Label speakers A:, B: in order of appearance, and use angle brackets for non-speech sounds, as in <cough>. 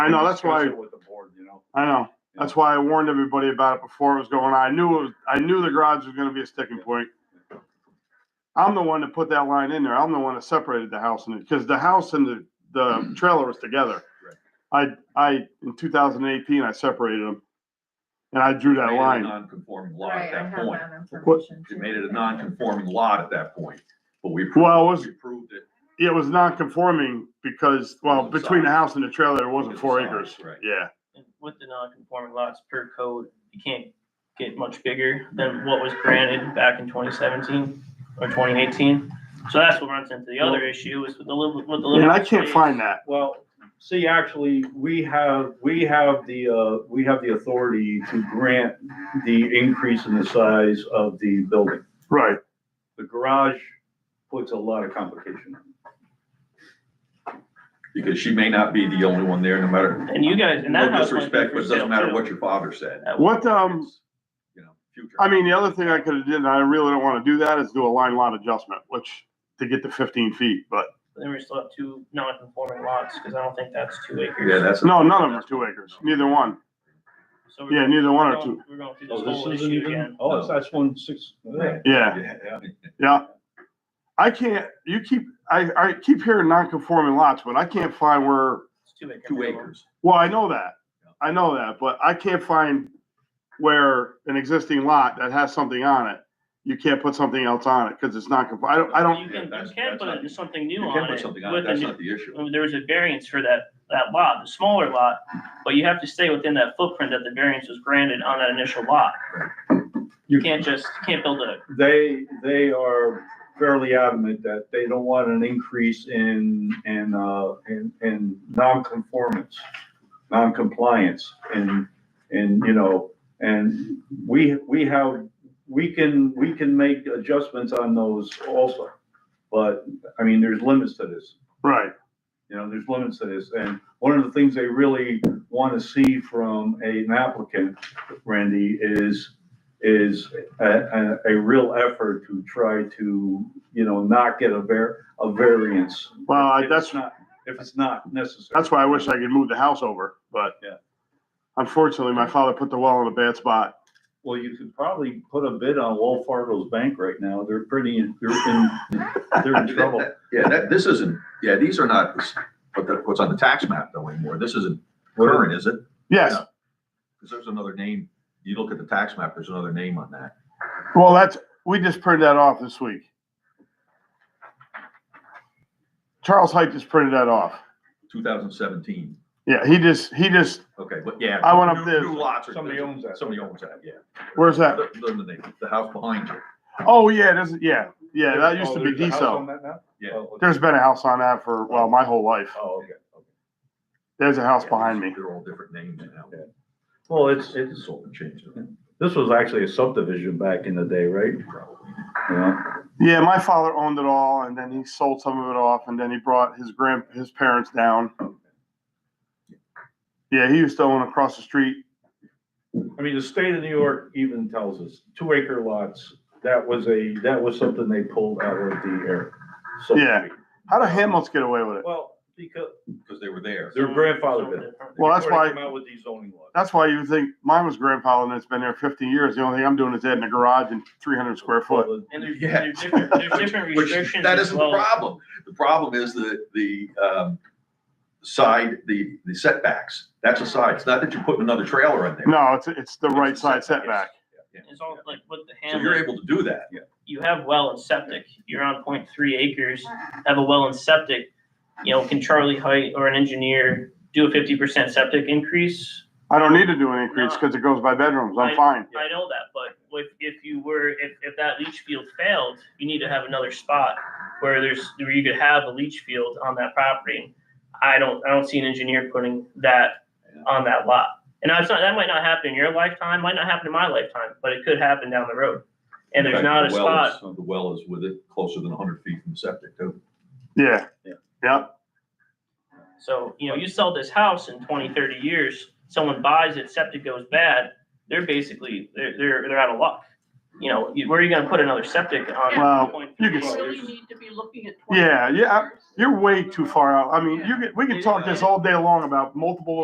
A: I know, that's why,
B: Discuss it With the board, you know.
A: I know. That's why I warned everybody about it before it was going on. I knew it was, I knew the garage was gonna be a sticking point. I'm the one that put that line in there. I'm the one that separated the house and, because the house and the,
C: <clears throat>
A: the trailer was together. I, I, in two thousand eighteen, I separated them. And I drew that
C: Made it a
A: line.
C: Non-conforming lot at
D: Right, I
C: that
D: have
C: point.
D: that
A: What-
D: information.
C: You
D: too.
C: made it a non-conforming lot at that point, but we. approved-
A: Well, it was,
C: We approved it.
A: it was non-conforming because, well,
C: Because of
A: between the
C: size.
A: house and the trailer, there wasn't
C: Because of
A: four
C: size,
A: acres.
C: right.
A: Yeah.
E: And with the non-conforming lots per code, you can't get much bigger than what was granted back in twenty seventeen or twenty eighteen. So that's what runs into the other issue is with the lim- with the.
A: And I
E: limited
A: can't
E: space.
A: find that.
B: Well, see, actually, we have, we have the, uh, we have the authority to grant the increase in the size of the building.
A: Right.
B: The garage puts a lot of complication.
C: Because she may not be the only one there, no matter,
E: And you guys, and
C: no
E: that house might be
C: disrespect,
E: for
C: but it
E: sale
C: doesn't matter
E: too.
C: what your father said.
A: What, um,
C: It's, You know, future.
A: I mean, the other thing I could have did, and I really don't want to do that, is do a line lot adjustment, which to get to fifteen feet, but
E: Then we still have two non-conforming lots, because I don't think that's two
C: Yeah,
E: acres.
C: that's.
A: no, none of them are two acres, neither one.
E: So we're
A: Yeah,
E: going-
A: neither one
E: we're
A: or
E: going-
A: two.
E: We're going through
B: Oh,
E: this
B: this
E: whole
B: isn't
E: issue
B: even,
E: again.
B: oh, that's- that's one six.
C: Right.
A: Yeah,
C: Yeah, yeah.
A: I can't, you keep, I, I keep hearing non-conforming lots, but I can't find where,
E: It's two acres.
C: Two acres.
A: well, I know that. I know that, but I can't find where an existing lot that has something on it, you can't put something else on it, because it's not, conform- I don't, I don't,
E: You
C: Yeah,
E: can,
C: that's-
E: you can
C: that's
E: put
C: not-
E: it- something
C: You
E: new
C: can
E: on
C: put
E: it.
C: something on,
E: with
C: it.
E: a
C: that's
E: new-
C: not the issue.
E: Well, there was a variance for that, that lot, the smaller lot, but you have to stay within that footprint that the variance was granted on that initial lot. You can't just, you can't build a,
B: They, they are fairly adamant that they don't want an increase in, in, uh, in, in non-conformance, non-compliance, and, and, you know, and we, we have, we can, we can make adjustments on those also. But, I mean, there's limits to this.
A: right,
B: You know, there's limits to this, and one of the things they really want to see from an applicant, Randy, is, is a, a, a real effort to try to, you know, not get a var, a variance.
A: Well, I-
B: If it's
A: that's-
B: not- If it's not necessary.
A: that's why I wish I could move the house over, but.
B: Yeah.
A: Unfortunately, my father put the well in a bad spot.
B: Well, you could probably put a bid on Wolf Fargo's bank right now, they're pretty, in- they're in,
C: <laughs>
B: they're in trouble.
C: Yeah, that, this isn't, yeah, these are not, what the- what's on the tax map though anymore. This isn't
B: What are-
C: current, is it?
A: Yes,
C: Yeah. Because there's another name, you look at the tax map, there's another name on that.
A: Well, that's, we just printed that off this week. Charles Height just printed that off.
C: Two thousand seventeen,
A: Yeah, he just, he just,
C: okay, but yeah.
A: I went up
C: new-
A: there.
C: New lots are.
B: Somebody owns that.
C: Somebody owns that, yeah.
A: Where's that?
C: The, the- the- the house behind you,
A: oh yeah, this, yeah, yeah, that used to
B: Oh,
A: be
B: there's a house
A: diesel.
B: on that now?
C: Yeah.
B: Oh, okay.
A: There's been a house on that for, well, my whole life.
B: Oh, okay.
A: There's a house
C: Yeah,
A: behind me.
C: They're all different names now.
B: Yeah. Well, it's, it's,
C: It's all been changed,
B: This was actually a subdivision back in the day, right?
C: probably.
B: Yeah.
A: Yeah, my father owned it all and then he sold some of it off and then he brought his grand, his parents down. Yeah, he used to own across the street.
B: I mean, the state of New York even tells us, two acre lots, that was a, that was something they pulled out of the air.
A: Yeah. How do Hamlets get away with it?
B: Well, because
C: Because they were there.
B: their grandfather did.
A: Well, that's
B: Before
A: why-
B: they Came out with these zoning laws.
A: That's why you think mine was grandfathered and it's been there fifty years. The only thing I'm doing is adding a garage and three hundred square foot.
E: And there's,
C: Yeah.
E: there's different, there's
C: <laughs>
E: different
C: Which,
E: restrictions
C: that
E: as
C: isn't the
E: well.
C: problem. The problem is the, the, um, side, the, the setbacks. That's a side. It's not that you're putting another trailer in there.
A: No, it's, it's the right side setback.
E: It's all like with the
C: So you're
E: hamlet,
C: able to do that.
E: you have well and septic, you're on point three acres, have a well and septic. You know, can Charlie Height or an engineer do a fifty percent septic increase?
A: I don't need to do an increase because it goes by bedrooms. I'm fine.
E: I know that, but if, if you were, if, if that leach field failed, you need to have another spot where there's, where you could have a leach field on that property. I don't, I don't see an engineer putting that on that lot. And that's not, that might not happen in your lifetime, might not happen in my lifetime, but it could happen down the road. And there's
C: Right,
E: not a
C: the well is-
E: spot,
C: The well is with it closer than hundred feet from the septic too.
A: Yeah.
B: Yeah.
A: Yep.
E: so, you know, you sell this house in 20, 30 years, someone buys it, septic goes bad, they're basically, they're, they're, they're out of luck. You know, you- where are you gonna put another septic on?
A: Well,
E: 1.3
A: you could-
E: acres?
D: Really need to be looking at.
A: Yeah, yeah,
D: 20 years.
A: You're way too far out. I mean, you could, we could talk this all day long about multiple